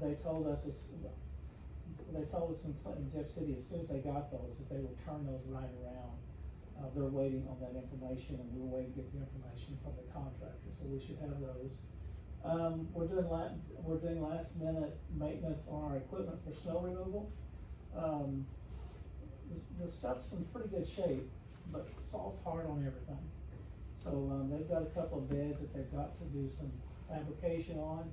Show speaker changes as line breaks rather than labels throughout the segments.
they told us, as- they told us in Clinton, Jeff City, as soon as they got those, that they would turn those right around. Uh, they're waiting on that information, and we're waiting to get the information from the contractor, so we should have those. Um, we're doing la- we're doing last minute maintenance on our equipment for snow removal. Um, the, the stuff's in pretty good shape, but salt's hard on everything. So, um, they've got a couple of beds that they've got to do some fabrication on.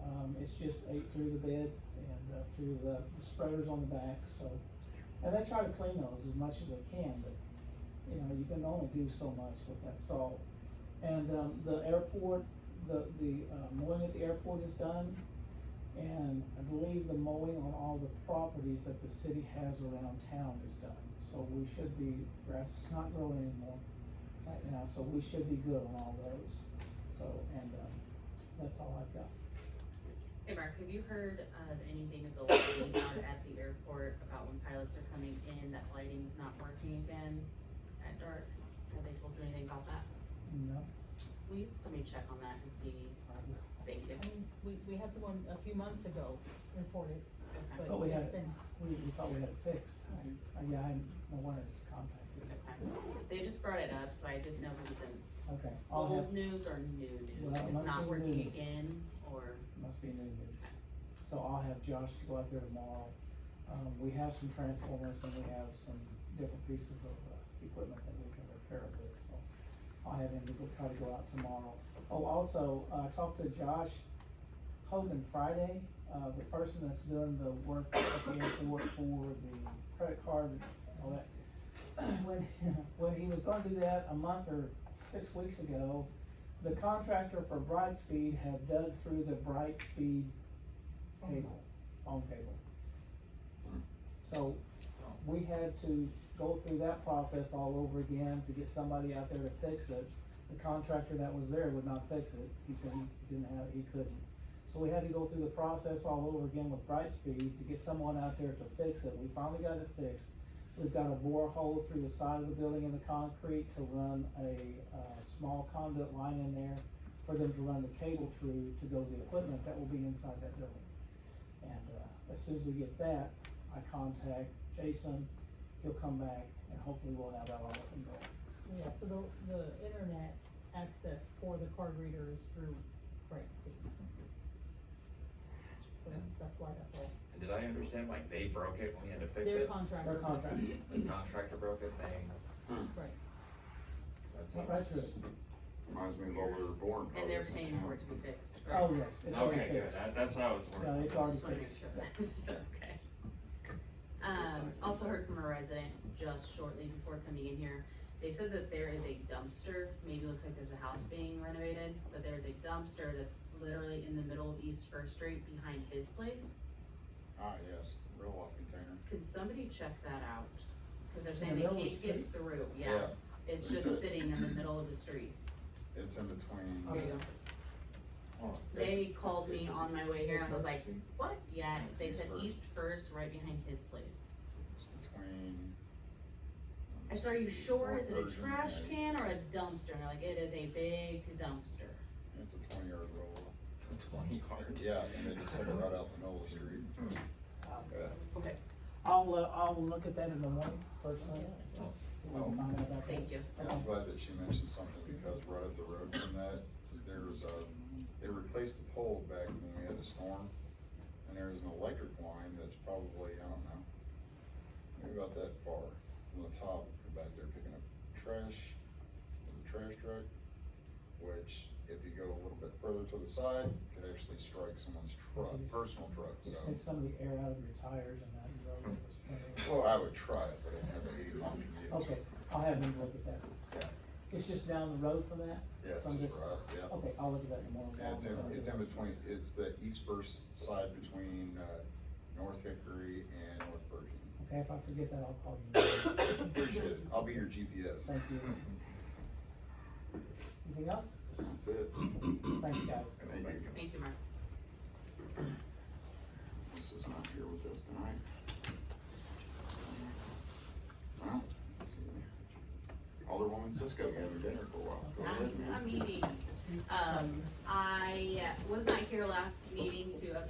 Um, it's just ate through the bed and, uh, through the spreaders on the back, so. And they try to clean those as much as they can, but, you know, you can only do so much with that salt. And, um, the airport, the, the, uh, mowing at the airport is done. And I believe the mowing on all the properties that the city has around town is done. So we should be, grass is not growing anymore right now, so we should be good on all those. So, and, um, that's all I've got.
Hey Mark, have you heard of anything of the lighting down at the airport about when pilots are coming in, that lighting's not working again at dark? Have they told you anything about that?
No,
Will you, somebody check on that and see,
I will.
thank you,
I mean, we, we had someone a few months ago report it,
okay,
Oh,
but
we had
it's
it.
been,
We, we thought we had it fixed.
Mhm.
Uh, Yeah, I, no one has contacted.
okay. They just brought it up, so I didn't know if it was in
Okay, I'll have,
old news or new news,
Well, it
if
must
it's not
be
working
new.
again, or,
must be new news. So I'll have Josh to go out there tomorrow. Um, we have some transformers and we have some different pieces of, uh, equipment that we can repair with, so. I'll have him to go, try to go out tomorrow. Oh, also, uh, I talked to Josh Hogan Friday, uh, the person that's doing the work at the airport for the credit card and all that. When, when he was gonna do that a month or six weeks ago, the contractor for Brightspeed had dug through the Brightspeed cable, phone cable. So, we had to go through that process all over again to get somebody out there to fix it. The contractor that was there would not fix it, he said he didn't have, he couldn't. So we had to go through the process all over again with Brightspeed to get someone out there to fix it, we finally got it fixed. We've got a borehole through the side of the building in the concrete to run a, uh, small conduit line in there for them to run the cable through to go to the equipment that will be inside that building. And, uh, as soon as we get that, I contact Jason, he'll come back, and hopefully we'll have that all up and going.
yeah, so the, the internet access for the card reader is through Brightspeed. So that's, that's why that's all,
And did I understand, like, they broke it, we had to fix
their
it,
contract.
Their contract,
the contractor broke it, they,
Right,
that
went right through
seems.
it.
Reminds me of when we were born.
and
probably,
they're
it's in
paying
town.
for it to be fixed, right?
Oh, yes, it's already
Okay, good,
fixed.
that, that's what I was
Yeah,
wondering.
it's already
Just wanna make
fixed.
sure that's okay. Um, also heard from a resident just shortly before coming in here, they said that there is a dumpster, maybe looks like there's a house being renovated, but there's a dumpster that's literally in the middle of East First Street behind his place.
Ah, yes, real off container.
Could somebody check that out? Cause they're
In
saying
the
they
middle of
can't
the
get through, yeah, it's
They
just
said-
sitting in the middle of the street.
It's in between.
There you go.
Oh,
They called me on my way here, I was like,
It's
what? Yeah, they said
First.
East First, right behind his place.
between.
I said, are you sure? Is it a
Version,
trash
yeah.
can or a dumpster? And they're like, it is a big dumpster.
It's a twenty yard roll.
Twenty yards.
Yeah, and they just took it right out the middle of the street.
Hmm.
Yeah.
I'll, uh, I'll look at that in the morning, personally. We'll
Oh.
find out about that.
Thank you.
And I'm glad that she mentioned something because right up the road from that, there's a, it replaced the pole back when we had a storm. And there's an electric line that's probably, I don't know, maybe about that far from the top, You're back there picking up trash, with a trash truck. Which if you go a little bit further to the side, could actually strike someone's truck, personal truck,
Just
so.
take some of the air out of your tires and that, you're over this point.
Well, I would try it, but I'd have to eat long to
Okay,
get.
I'll have him look at that. It's just down the road from that?
Yeah, it's
I'm
just
just-
right, yeah.
Okay, I'll look at that in the morning.
And It's in, it's in between, it's the east first side between, uh, North Hickory and North Virgin.
Okay, if I forget that, I'll call you.
Appreciate it, I'll be your GPS.
Thank you. Anything else?
That's it.
Thanks, guys.
Thank you.
Thank you, Mark.
This is not here with us tonight. Well, let's see. Alderwoman Cisco having dinner for a while. Go ahead,
I'm,
ma'am.
I'm meeting. Um, I was not here last meeting to update